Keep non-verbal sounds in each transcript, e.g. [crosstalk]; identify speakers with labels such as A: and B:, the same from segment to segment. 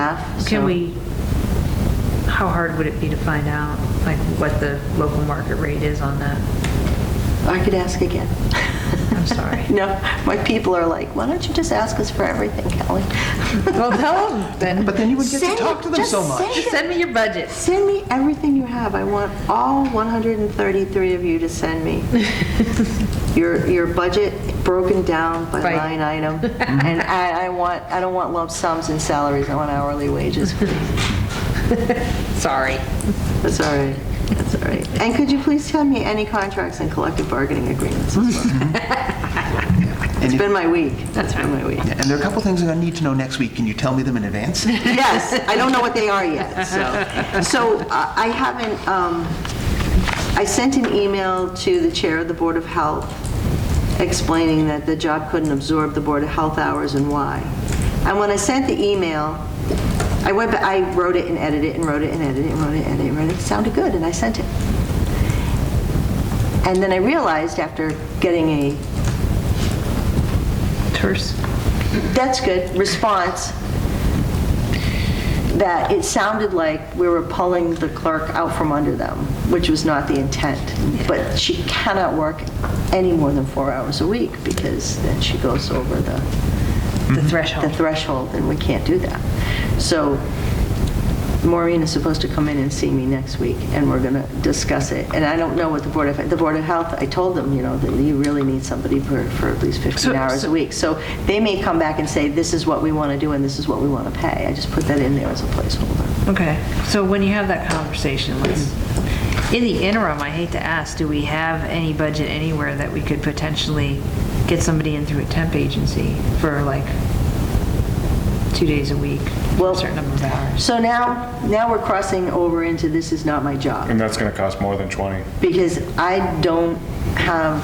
A: half.
B: Can
A: so-
B: we, how hard would it be to find out, like, what the local market rate is on that?
A: I could ask again. [laughs]
B: I'm sorry.
A: No, my people are like, why don't you just ask us for everything, Kelly?
B: [laughs] Well, tell them
C: But then you would get to talk to them so much.
B: Send me your budget.
A: Send me everything you have. I want all 133 of you to send
B: [laughs]
A: me your, your budget broken down by
B: Right.
A: line
B: [laughs]
A: item. And I, I want, I don't want lump sums and salaries, I want hourly wages, please.
B: Sorry.
A: That's all right, that's all right. And could you please tell me any contracts and collective bargaining
C: [laughs]
A: agreements as well? It's been my week. That's been my week.
C: And there are a couple things I'm going to need to know next week. Can you tell me them in advance?
A: Yes, I don't know what they are yet, so. So uh, I haven't, um, I sent an email to the chair of the Board of Health explaining that the job couldn't absorb the Board of Health hours and why. And when I sent the email, I went, ba- I wrote it and edited it and wrote it and edited it and wrote it and edited it and wrote it. It sounded good, and I sent it. And then I realized after getting a
B: Terse.
A: that's good, response, that it sounded like we were pulling the clerk out from under them, which was not the intent. But she cannot work any more than four hours a week, because then she goes over the,
B: The
A: the
B: threshold.
A: threshold, and we can't do that. So Maureen is supposed to come in and see me next week, and we're going to discuss it. And I don't know what the Board of, the Board of Health, I told them, you know, that you really need somebody for, for at least 15
B: So-
A: hours a
B: so-
A: week. So they may come back and say, this is what we want to do, and this is what we want to pay. I just put that in there as a placeholder.
B: Mm-hmm. Okay, so when you have that conversation, let's, in the interim, I hate to ask, do we have any budget anywhere that we could potentially get somebody in through a temp agency for like two days a week,
A: Well-
B: a certain number of hours?
A: So now, now we're crossing over into this is not my job,
D: And that's going to cost more than 20.
A: because I don't have,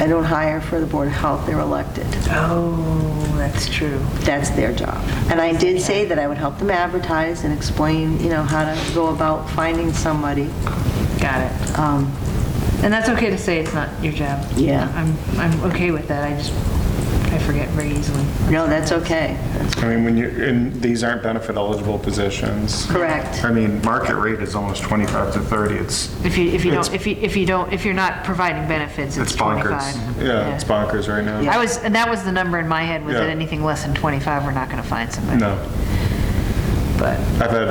A: I don't hire for the Board of Health, they're elected.
B: Oh, that's true.
A: that's their job. And I did say that I would help them advertise and explain, you know, how to go about finding somebody.
B: Got it.
A: Um,
B: And that's okay to say it's not your job.
A: Yeah.
B: I'm, I'm okay with that, I just, I forget very easily.
A: No, that's okay. That's
D: I mean, when you, and these aren't benefit eligible positions.
A: Correct.
D: I mean, market rate is almost 25 to 30. It's,
B: If you, if you don't,
D: It's-
B: if you, if you don't, if you're not providing benefits, it's
D: it's bonkers.
B: 25.
D: Yeah, it's bonkers right now.
B: I was, and that was the number in my head, was that
D: Yeah.
B: anything less than 25, we're not going to find somebody.
D: No,
B: But,
D: I've had,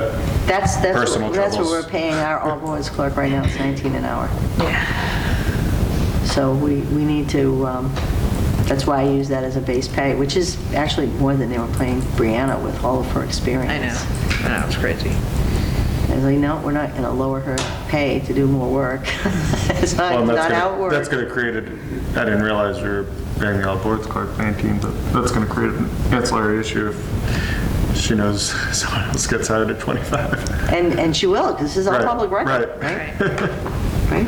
A: That's, that's,
D: Personal
A: what- that's what
D: troubles.
A: we're paying our all-boys clerk right now, it's 19 an hour.
B: yeah,
A: So we, we need to, um, that's why I use that as a base pay, which is actually more than they were paying Brianna with all of her experience.
B: I know, I know, it's crazy.
A: I was like, no, we're not going to lower her pay to do more work. [laughs] It's not,
D: well,
A: not
D: that's
A: how it
D: gonna-
A: works.
D: that's going to create, a- I didn't realize we were paying the all boards clerk 19, but that's going to create an ancillary issue if she knows [laughs] someone else gets hired at 25.
A: And, and she will, because this is all
D: Right,
A: public record.
D: right.
A: [laughs] right?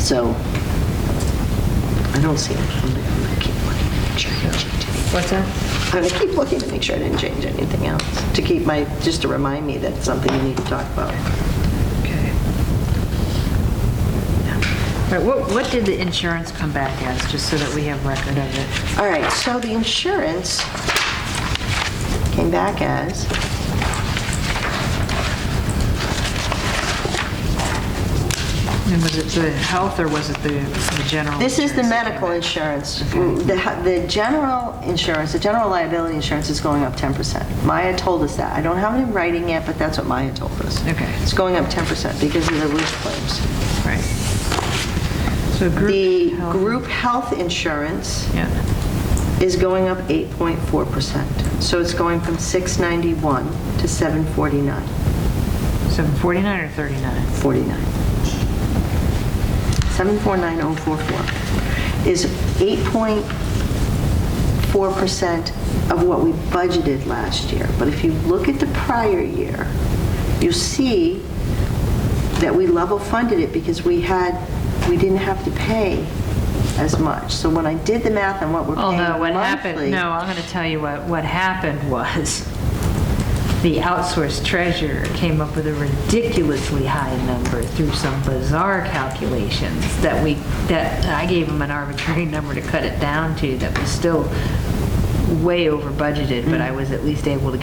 A: So, I don't see it. I'm gonna- I'm gonna keep looking to make sure I didn't change anything.
B: What's that?
A: I'm gonna keep looking to make sure I didn't change anything else, to keep my, just to remind me that it's something we need to talk about.
B: Okay. All right, what, what did the insurance come back as, just so that we have record of it?
A: All right, so the insurance came back as,
B: And was it the health, or was it the the general?
A: this is the
B: insurance that came
A: medical
B: back?
A: insurance. The, the general insurance, the general liability insurance is going up 10%. Maya told us that. I don't have it in writing yet, but that's what Maya told us.
B: Okay.
A: It's going up 10% because of the roof claims.
B: Right. So group.
A: The
B: health-
A: group health insurance
B: Yeah,
A: is going up 8.4%. So it's going from 691 to 749,
B: so 49 or 39?
A: 49. 749,044 is 8.4% of what we budgeted last year. But if you look at the prior year, you see that we level funded it because we had, we didn't have to pay as much. So when I did the math on what we're paying
B: Although what
A: monthly-
B: happened, no, I'm going to tell you what, what happened was [laughs] the outsourced treasurer came up with a ridiculously high number through some bizarre calculations [laughs] that we, that I gave him an arbitrary number to cut it down to that was still
A: Mm.
B: way over budgeted, but I was at least able to